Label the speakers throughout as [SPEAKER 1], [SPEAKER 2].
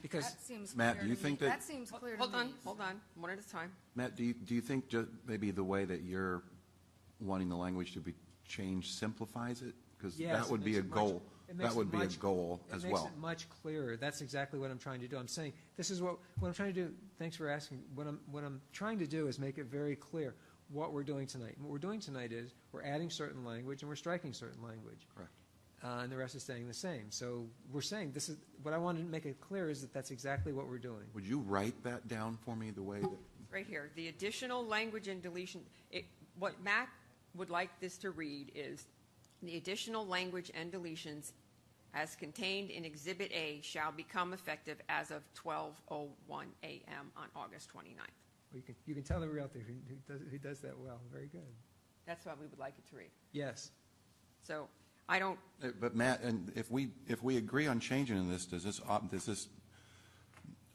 [SPEAKER 1] Because,
[SPEAKER 2] That seems
[SPEAKER 3] Matt,
[SPEAKER 2] clear to
[SPEAKER 3] do you
[SPEAKER 2] me.
[SPEAKER 3] think that-
[SPEAKER 2] That seems clear to me.
[SPEAKER 4] Hold on, hold on, one at a time.
[SPEAKER 3] Matt, do you, do you think ju- maybe the way that you're wanting the language to be changed simplifies it? Because
[SPEAKER 1] yes.
[SPEAKER 3] that would
[SPEAKER 1] it
[SPEAKER 3] be
[SPEAKER 1] makes
[SPEAKER 3] a
[SPEAKER 1] it much-
[SPEAKER 3] goal,
[SPEAKER 1] it makes
[SPEAKER 3] that
[SPEAKER 1] it
[SPEAKER 3] would be a
[SPEAKER 1] much-
[SPEAKER 3] goal as
[SPEAKER 1] It
[SPEAKER 3] well.
[SPEAKER 1] makes it much clearer. That's exactly what I'm trying to do. I'm saying, this is what, what I'm trying to do, thanks for asking. What I'm, what I'm trying to do is make it very clear what we're doing tonight. And what we're doing tonight is, we're adding certain language and we're striking certain language.
[SPEAKER 3] Correct.
[SPEAKER 1] uh, and the rest is staying the same. So we're saying this is, what I wanted to make it clear is that that's exactly what we're doing.
[SPEAKER 3] Would you write that down for me the way that,
[SPEAKER 4] Right here, the additional language and deletion, it, what Mac would like this to read is, the additional language and deletions as contained in Exhibit A shall become effective as of twelve oh one AM on August 29th.
[SPEAKER 1] Or You can, you can tell that we're out there who, who does, who does that well. Very good.
[SPEAKER 4] That's what we would like it to read.
[SPEAKER 1] Yes.
[SPEAKER 4] So I don't,
[SPEAKER 3] Uh, but Matt, and if we, if we agree on changing this, does this, op- does this,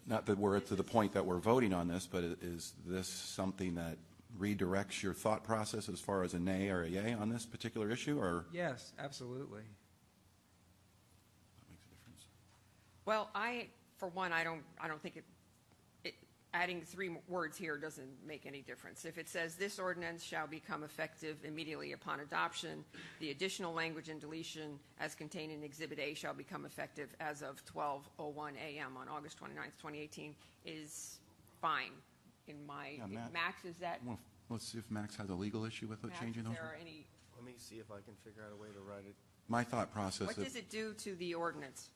[SPEAKER 3] not that we're to the point that we're voting on this, but i- is this something that redirects your thought process as far as a nay or a yay on this particular issue, or?
[SPEAKER 1] Yes, absolutely.
[SPEAKER 3] That makes a difference.
[SPEAKER 4] well, I, for one, I don't, I don't think it, it, adding three mo- words here doesn't make any difference. If it says this ordinance shall become effective immediately upon adoption, the additional language and deletion as contained in Exhibit A shall become effective as of twelve oh one AM on August 29th, eighteen, is fine in my,
[SPEAKER 3] Yeah, Matt.
[SPEAKER 4] Max, is that,
[SPEAKER 3] Well, Let's see if Max has a legal issue with it
[SPEAKER 4] Max,
[SPEAKER 3] changing
[SPEAKER 4] is
[SPEAKER 3] those.
[SPEAKER 4] there are any,
[SPEAKER 5] Let me see if I can figure out a way to write it.
[SPEAKER 3] My thought process,
[SPEAKER 4] what
[SPEAKER 3] that-
[SPEAKER 4] does it do to the ordinance?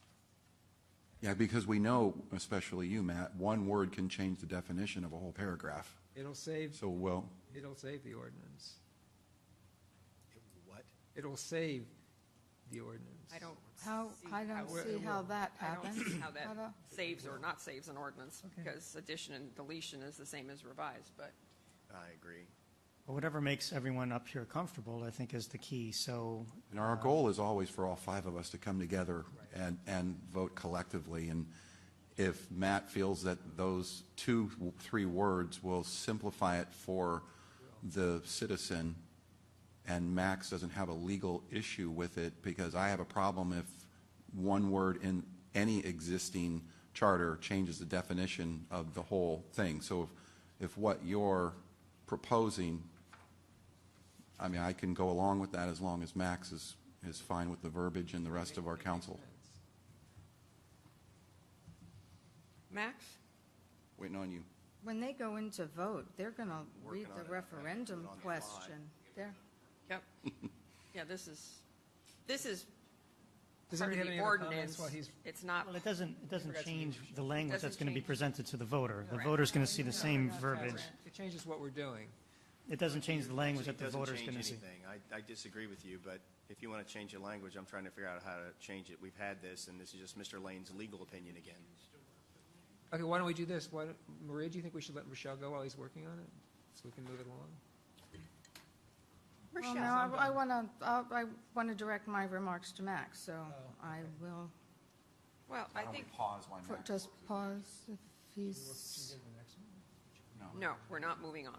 [SPEAKER 3] yeah, because we know, especially you, Matt, one word can change the definition of a whole paragraph.
[SPEAKER 1] It'll save,
[SPEAKER 3] So, well,
[SPEAKER 1] it'll save the ordinance.
[SPEAKER 5] What?
[SPEAKER 1] It'll save the ordinance.
[SPEAKER 4] I don't.
[SPEAKER 2] How,
[SPEAKER 4] see
[SPEAKER 2] I don't
[SPEAKER 4] how it-
[SPEAKER 2] see how that
[SPEAKER 4] I don't
[SPEAKER 2] happens.
[SPEAKER 4] see how that
[SPEAKER 2] How the-
[SPEAKER 4] saves or not saves an ordinance,
[SPEAKER 1] Okay.
[SPEAKER 4] because addition and deletion is the same as revised, but
[SPEAKER 5] I agree.
[SPEAKER 6] Well, Whatever makes everyone up here comfortable, I think, is the key. So
[SPEAKER 3] and our goal is always for all five of us to come together and, and vote collectively. And if Matt feels that those two, three words will simplify it for the citizen, and Max doesn't have a legal issue with it, because I have a problem if one word in any existing charter changes the definition of the whole thing. So if, if what you're proposing, I mean, I can go along with that as long as Max is, is fine with the verbiage and the rest of our council.
[SPEAKER 4] Max?
[SPEAKER 3] Waiting on you.
[SPEAKER 2] When they go into vote, they're going to read
[SPEAKER 5] Working on it. I have to do
[SPEAKER 2] the
[SPEAKER 5] it
[SPEAKER 2] referendum
[SPEAKER 5] on the fly.
[SPEAKER 2] question. They're,
[SPEAKER 4] Yep. Yeah, this is, this is
[SPEAKER 1] Does
[SPEAKER 4] part
[SPEAKER 1] anybody
[SPEAKER 4] of
[SPEAKER 1] have any
[SPEAKER 4] the
[SPEAKER 1] other comments
[SPEAKER 4] ordinance.
[SPEAKER 1] while he's?
[SPEAKER 4] It's not,
[SPEAKER 6] well, it doesn't, it doesn't
[SPEAKER 1] forgot to
[SPEAKER 6] change the language that's
[SPEAKER 4] Doesn't
[SPEAKER 6] going to be
[SPEAKER 4] change.
[SPEAKER 6] presented to the voter. The
[SPEAKER 4] Correct.
[SPEAKER 6] voter's going to see the same
[SPEAKER 1] No,
[SPEAKER 6] verbiage.
[SPEAKER 1] It changes what we're doing.
[SPEAKER 6] It doesn't change the language that the
[SPEAKER 5] Actually, it doesn't
[SPEAKER 6] voter's
[SPEAKER 5] change
[SPEAKER 6] going to see.
[SPEAKER 5] anything. I, I disagree with you, but if you want to change the language, I'm trying to figure out how to change it. We've had this, and this is just Mr. Lane's legal opinion again.
[SPEAKER 1] Okay, why don't we do this? Why, don't- Maria, do you think we should let Rochelle go while he's working on it? So we can move it along?
[SPEAKER 2] well, no, I want to, I want to direct my remarks to Max, so
[SPEAKER 4] Oh,
[SPEAKER 2] I will
[SPEAKER 4] well, I think,
[SPEAKER 3] pause while
[SPEAKER 2] put- just pause if he's,
[SPEAKER 4] no, we're not moving on.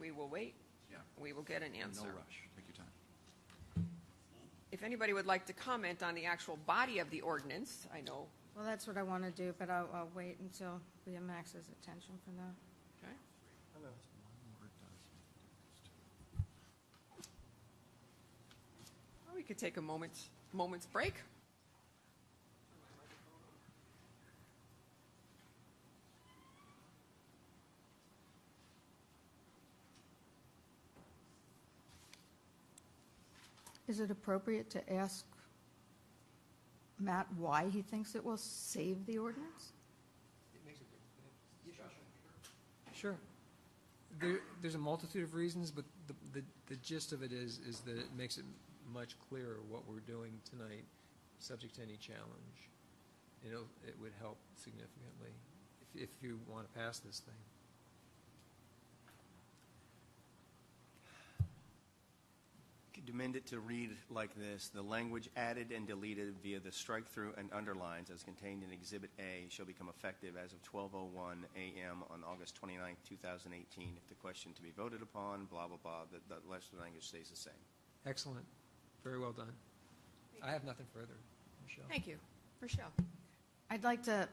[SPEAKER 4] We will wait.
[SPEAKER 3] Yeah.
[SPEAKER 4] We will get an
[SPEAKER 3] No
[SPEAKER 4] answer.
[SPEAKER 3] rush, take your time.
[SPEAKER 4] If anybody would like to comment on the actual body of the ordinance, I know,
[SPEAKER 2] well, that's what I want to do, but I'll, I'll wait until we have Max's attention for that.
[SPEAKER 4] okay? Or We could take a moment's, moment's break.
[SPEAKER 2] Is it appropriate to ask Matt why he thinks it will save the ordinance?
[SPEAKER 1] Sure. There, there's a multitude of reasons, but the, the, the gist of it is, is that it makes it much clearer what we're doing tonight, subject to any challenge. It'll, it would help significantly if, if you want to pass this thing.
[SPEAKER 5] Could amend it to read like this: The language added and deleted via the strike-through and underlines, as contained in Exhibit A, shall become effective as of 12:01 a.m. on August 29, 2018. If the question to be voted upon, blah blah blah, the, the rest of the language stays the same.
[SPEAKER 1] Excellent. Very well done. I have nothing further, Michelle.
[SPEAKER 4] Thank you. Rochelle?
[SPEAKER 2] I'd like to